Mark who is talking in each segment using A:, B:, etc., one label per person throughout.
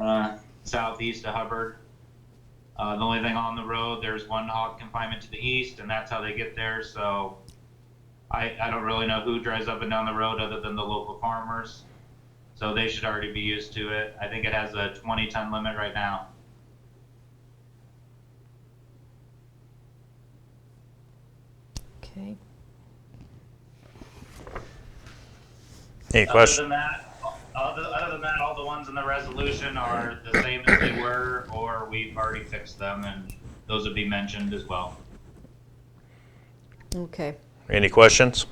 A: uh, southeast of Hubbard. Uh, the only thing on the road, there's one hog confinement to the east, and that's how they get there. So I, I don't really know who drives up and down the road other than the local farmers. So they should already be used to it. I think it has a 20 ton limit right now.
B: Okay.
C: Any
A: Other
C: questions?
A: than that, other, other than that, all the ones in the resolution are the same as they were, or we've already fixed them, and those would be mentioned as well.
B: Okay.
C: Any questions?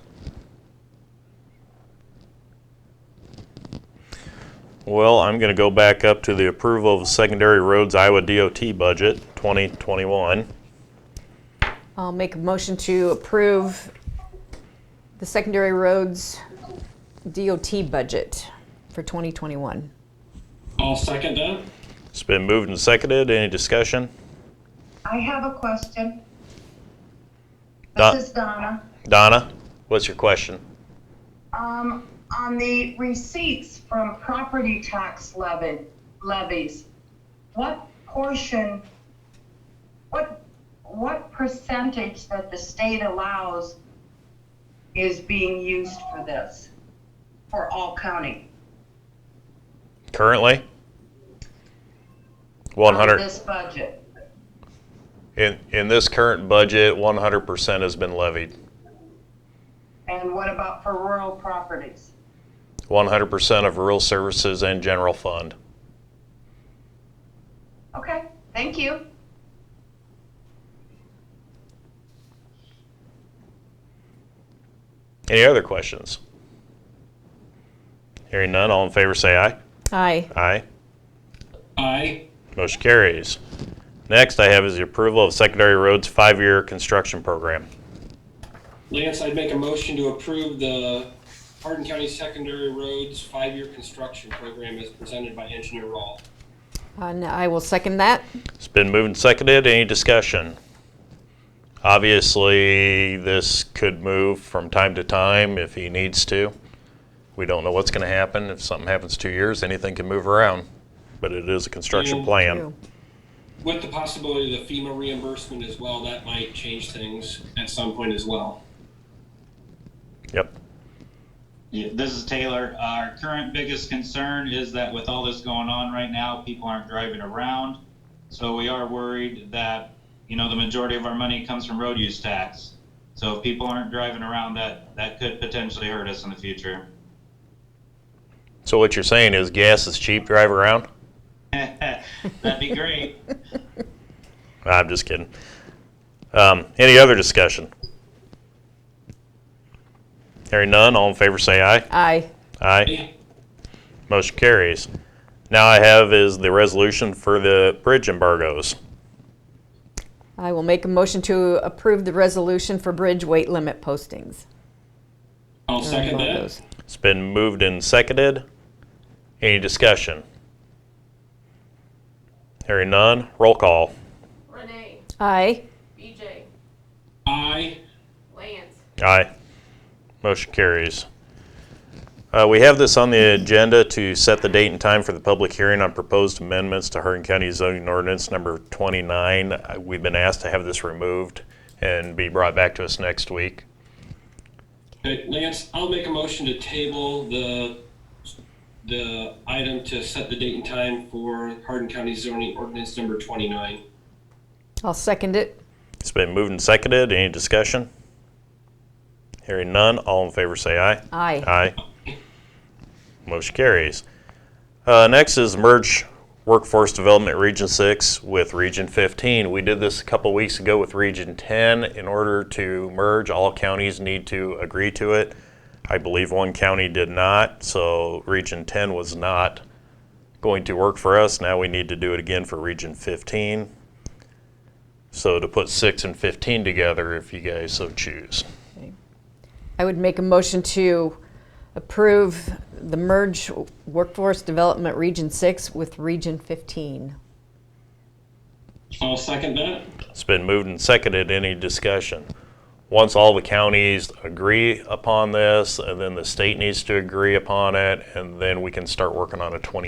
C: Well, I'm going to go back up to the approval of secondary roads Iowa DOT budget 2021.
B: I'll make a motion to approve the secondary roads DOT budget for 2021.
D: I'll second that.
C: It's been moved and seconded. Any discussion?
E: I have a question.
C: Don-
E: This is Donna.
C: Donna, what's your question?
E: Um, on the receipts from property tax levy, levies, what portion, what, what percentage that the state allows is being used for this, for all county?
C: Currently?
E: of
C: 100.
E: This budget.
C: In, in this current budget, 100% has been levied.
E: And what about for rural properties?
C: 100% of rural services and general fund.
E: Okay, thank you.
C: Any other questions? Hearing none, all in favor say aye.
B: Aye.
C: Aye.
D: Aye.
C: Motion carries. Next I have is the approval of secondary roads five-year construction program.
D: Lance, I'd make a motion to approve the Hardin County Secondary Roads five-year construction program as presented by Engineer Rawl.
B: And Uh, I will second that.
C: It's been moved and seconded. Any discussion? Obviously, this could move from time to time if he needs to. We don't know what's going to happen. If something happens two years, anything can move around. But it is a construction
D: Yeah.
C: plan.
D: With the possibility of the FEMA reimbursement as well, that might change things at some point as well.
C: Yep.
A: Yeah, this is Taylor. Our current biggest concern is that with all this going on right now, people aren't driving around. So we are worried that, you know, the majority of our money comes from road use tax. So if people aren't driving around, that, that could potentially hurt us in the future.
C: So what you're saying is gas is cheap, drive around?
A: That'd be great.
C: I'm just kidding. Um, any other discussion? Hearing none, all in favor say aye.
B: Aye.
C: Aye.
D: Aye.
C: Motion carries. Now I have is the resolution for the bridge embargoes.
B: I will make a motion to approve the resolution for bridge weight limit postings.
D: I'll second that.
B: Those.
C: It's been moved and seconded. Any discussion? Hearing none, roll call.
F: Renee,
B: Aye.
F: BJ,
D: Aye.
F: Lance,
C: Aye. Motion carries. Uh, we have this on the agenda to set the date and time for the public hearing on proposed amendments to Hardin County zoning ordinance number 29. Uh, We've been asked to have this removed and be brought back to us next week.
D: Okay, uh, Lance, I'll make a motion to table the, the item to set the date and time for Hardin County zoning ordinance number twenty-nine.
B: I'll second it.
C: It's been moved and seconded. Any discussion? Hearing none, all in favor say aye.
B: Aye.
C: Aye. Motion carries. Uh, next is merge workforce development Region 6 with Region 15. We did this a couple weeks ago with Region 10. In order to merge, all counties need to agree to it. I believe one county did not, so Region 10 was not going to work for us. Now we need to do it again for Region 15. So to put 6 and 15 together if you guys so choose.
B: I would make a motion to approve the merge workforce development Region 6 with Region 15.
D: I'll second that.
C: It's been moved and seconded. Any discussion? Once all the counties agree upon this, and then the state needs to agree upon it, and then we can start working on a 20